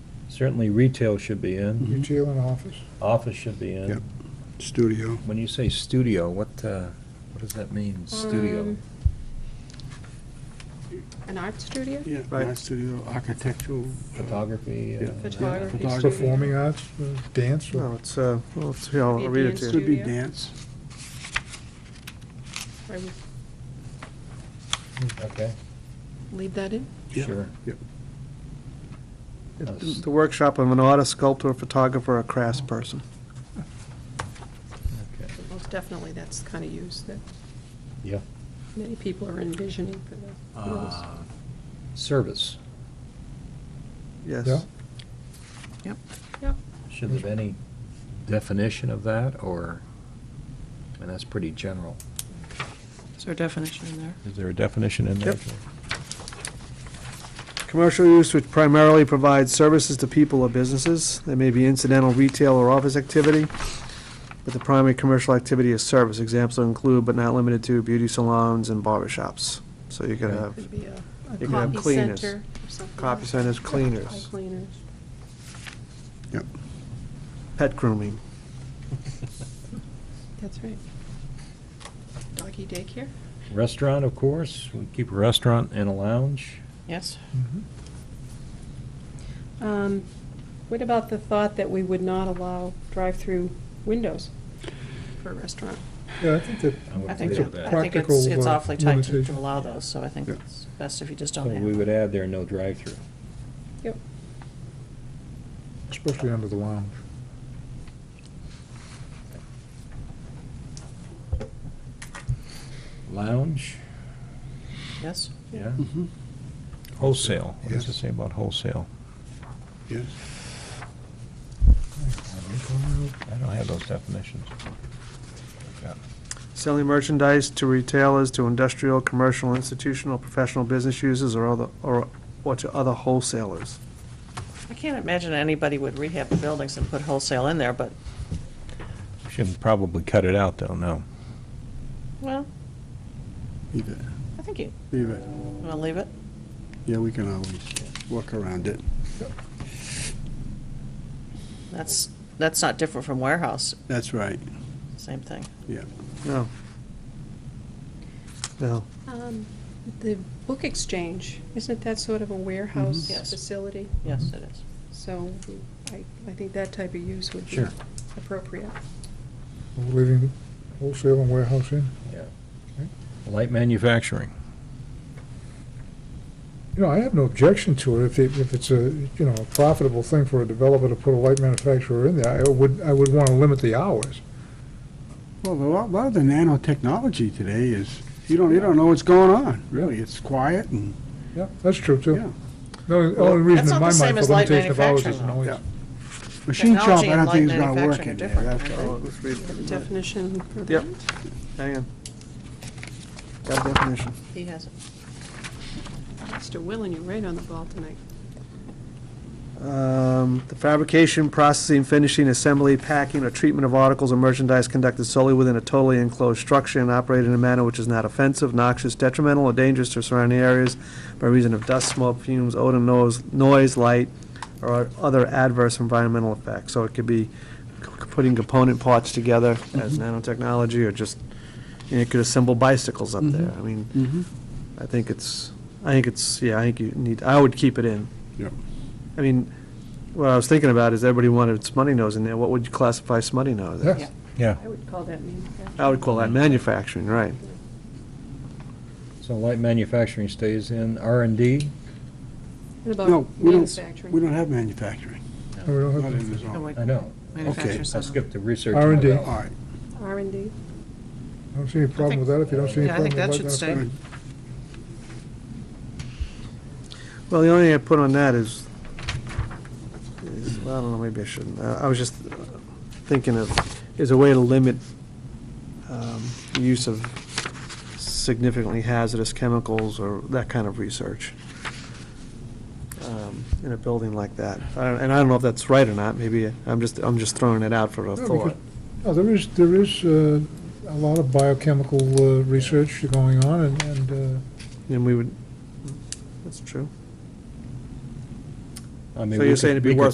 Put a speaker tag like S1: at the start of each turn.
S1: Certainly retail should be in,
S2: retail and office.
S1: office should be in.
S3: Yep. studio.
S1: When you say studio, what, uh, what does that mean, studio?
S4: Um, An art studio?
S3: Yeah,
S5: Right.
S3: art studio, architectural.
S1: Photography? uh,
S3: Yeah.
S4: Photography.
S3: Photography.
S4: studio.
S2: Performing arts, uh, dance,
S6: Oh,
S5: No, it's, uh, well, it's, here, I'll
S4: Be a
S5: read it
S4: dance
S3: It
S5: to you.
S3: Could be
S4: Studio.
S3: dance.
S4: I would
S1: Okay,
S4: leave that in.
S3: Yeah.
S1: sure.
S5: It's The workshop of an artist, sculptor, photographer, or craftsperson.
S1: Okay.
S4: Most definitely, that's the kind of use that
S1: Yeah.
S4: many people are envisioning for the rules.
S1: Uh, Service,
S5: Yes.
S2: Yeah.
S1: should there be any definition of that, or, I mean, that's pretty general.
S6: Is there a definition in there?
S1: Is there a definition in there?
S5: Yep. Commercial use which primarily provides services to people or businesses. There may be incidental retail or office activity, but the primary commercial activity is service. Examples include, but not limited to, beauty salons and barber shops. So you could
S1: Okay.
S5: have
S4: Could be a- a
S5: could have
S4: copy
S5: cleaners.
S4: center or something.
S5: copy centers, cleaners,
S4: Cleaners.
S5: pet grooming.
S4: That's right. Doggy daycare?
S1: Restaurant, of course, we keep a restaurant and a lounge.
S6: Yes.
S2: Mhm.
S4: Um, What about the thought that we would not allow drive-through windows for a restaurant?
S2: Yeah, I think that,
S6: I think,
S2: It's a
S6: I think it's,
S2: practical,
S6: it's
S2: uh,
S6: awfully tight to-
S2: limitation.
S6: to allow those, so I think
S3: Yeah.
S6: it's best if you just
S1: So
S6: don't have.
S1: we would add there, no drive-through.
S4: Yep.
S2: especially under the lounge.
S1: Lounge,
S6: Yes?
S1: yeah.
S3: Mhm.
S1: Wholesale, what does it
S3: Yes.
S1: say about wholesale?
S3: Yes.
S1: I don't have those definitions.
S5: Selling merchandise to retailers, to industrial, commercial, institutional, professional business users, or other, or, or to other wholesalers.
S6: I can't imagine anybody would rehab the buildings and put wholesale in there, but,
S1: Should probably cut it out, though, no.
S6: well,
S3: Leave it,
S6: I think you,
S3: leave it.
S6: want to leave it?
S3: Yeah, we can always work around it.
S6: That's, that's not different from warehouse,
S3: That's right,
S6: same thing.
S3: yeah.
S5: No. No.
S4: Um, The book exchange, isn't that sort of a warehouse
S6: Mhm.
S5: Mm-hmm.
S6: Yes.
S4: facility?
S6: Yes, it is.
S4: So I, I think that type of use would be
S1: Sure.
S4: appropriate.
S2: We're leaving wholesale and warehouse in.
S1: Light manufacturing.
S2: You know, I have no objection to it if it, if it's a, you know, a profitable thing for a developer to put a light manufacturer in there. I would, I would want to limit the hours.
S3: Well, a lot, a lot of the nanotechnology today is, you don't, you don't know what's going on, really. It's quiet and,
S2: Yeah, that's true,
S3: yeah.
S2: too. The only- the only reason
S6: That's
S2: in
S6: not
S2: my
S6: the same
S2: mind for
S6: as light
S2: limitation of hours
S6: manufacturing,
S2: isn't
S6: though.
S2: always.
S3: Yeah. Machine shop,
S6: Technology
S3: I
S6: and
S3: don't think it's
S6: light
S3: gonna work
S6: manufacturing
S3: in
S6: are
S3: there.
S6: different,
S3: That's
S6: aren't
S3: all.
S6: they?
S5: Let's read
S4: The definition for that?
S5: Yep. Hang on. Got a definition.
S6: He has it.
S4: Mr. Willen, you're right on the ball tonight.
S5: Um, The fabrication, processing, finishing, assembly, packing, or treatment of articles or merchandise conducted solely within a totally enclosed structure and operated in a manner which is not offensive, noxious, detrimental, or dangerous to surrounding areas by reason of dust, smoke, fumes, odor, noise, noise, light, or other adverse environmental effects. So it could be c- putting component parts together as nanotechnology, or just, and it could assemble bicycles up there. I mean,
S3: Mhm.
S5: I think it's, I think it's, yeah, I think you need, I would keep it in.
S3: Yep.
S5: I mean, what I was thinking about is everybody wanted smutty nose in there, what would you classify smutty nose as?
S2: Yeah.
S1: Yeah.
S4: I would call that manufacturing.
S5: I would call that manufacturing, right.
S1: So light manufacturing stays in. R and D,
S4: What
S3: No,
S4: about
S3: we don't, we
S4: manufacturing?
S3: don't have manufacturing.
S2: No, we don't have
S3: Not
S2: to.
S3: in the zone.
S6: No, wait,
S1: I know.
S6: manufacturers
S1: I
S6: doesn't-
S1: skipped the research.
S2: R&D.
S3: All right,
S4: R and D?
S2: I don't see any problem with that if you don't see any
S6: Yeah, I
S2: problem
S6: think
S2: with light
S6: that should
S2: manufacturing.
S6: stay.
S5: Well, the only thing I put on that is, is, well, I don't know, maybe I shouldn't. I I was just uh, thinking of, is a way to limit um, the use of significantly hazardous chemicals or that kind of research um, in a building like that. I don't- And I don't know if that's right or not, maybe I'm just, I'm just throwing it out for a
S2: No,
S5: thought.
S2: No, there is, there is uh, a lot of biochemical uh, research going on, and- and uh,
S5: And we would, that's true.
S1: I mean,
S5: So
S1: we
S5: you're
S1: could-
S5: saying it'd be
S1: we could
S5: worth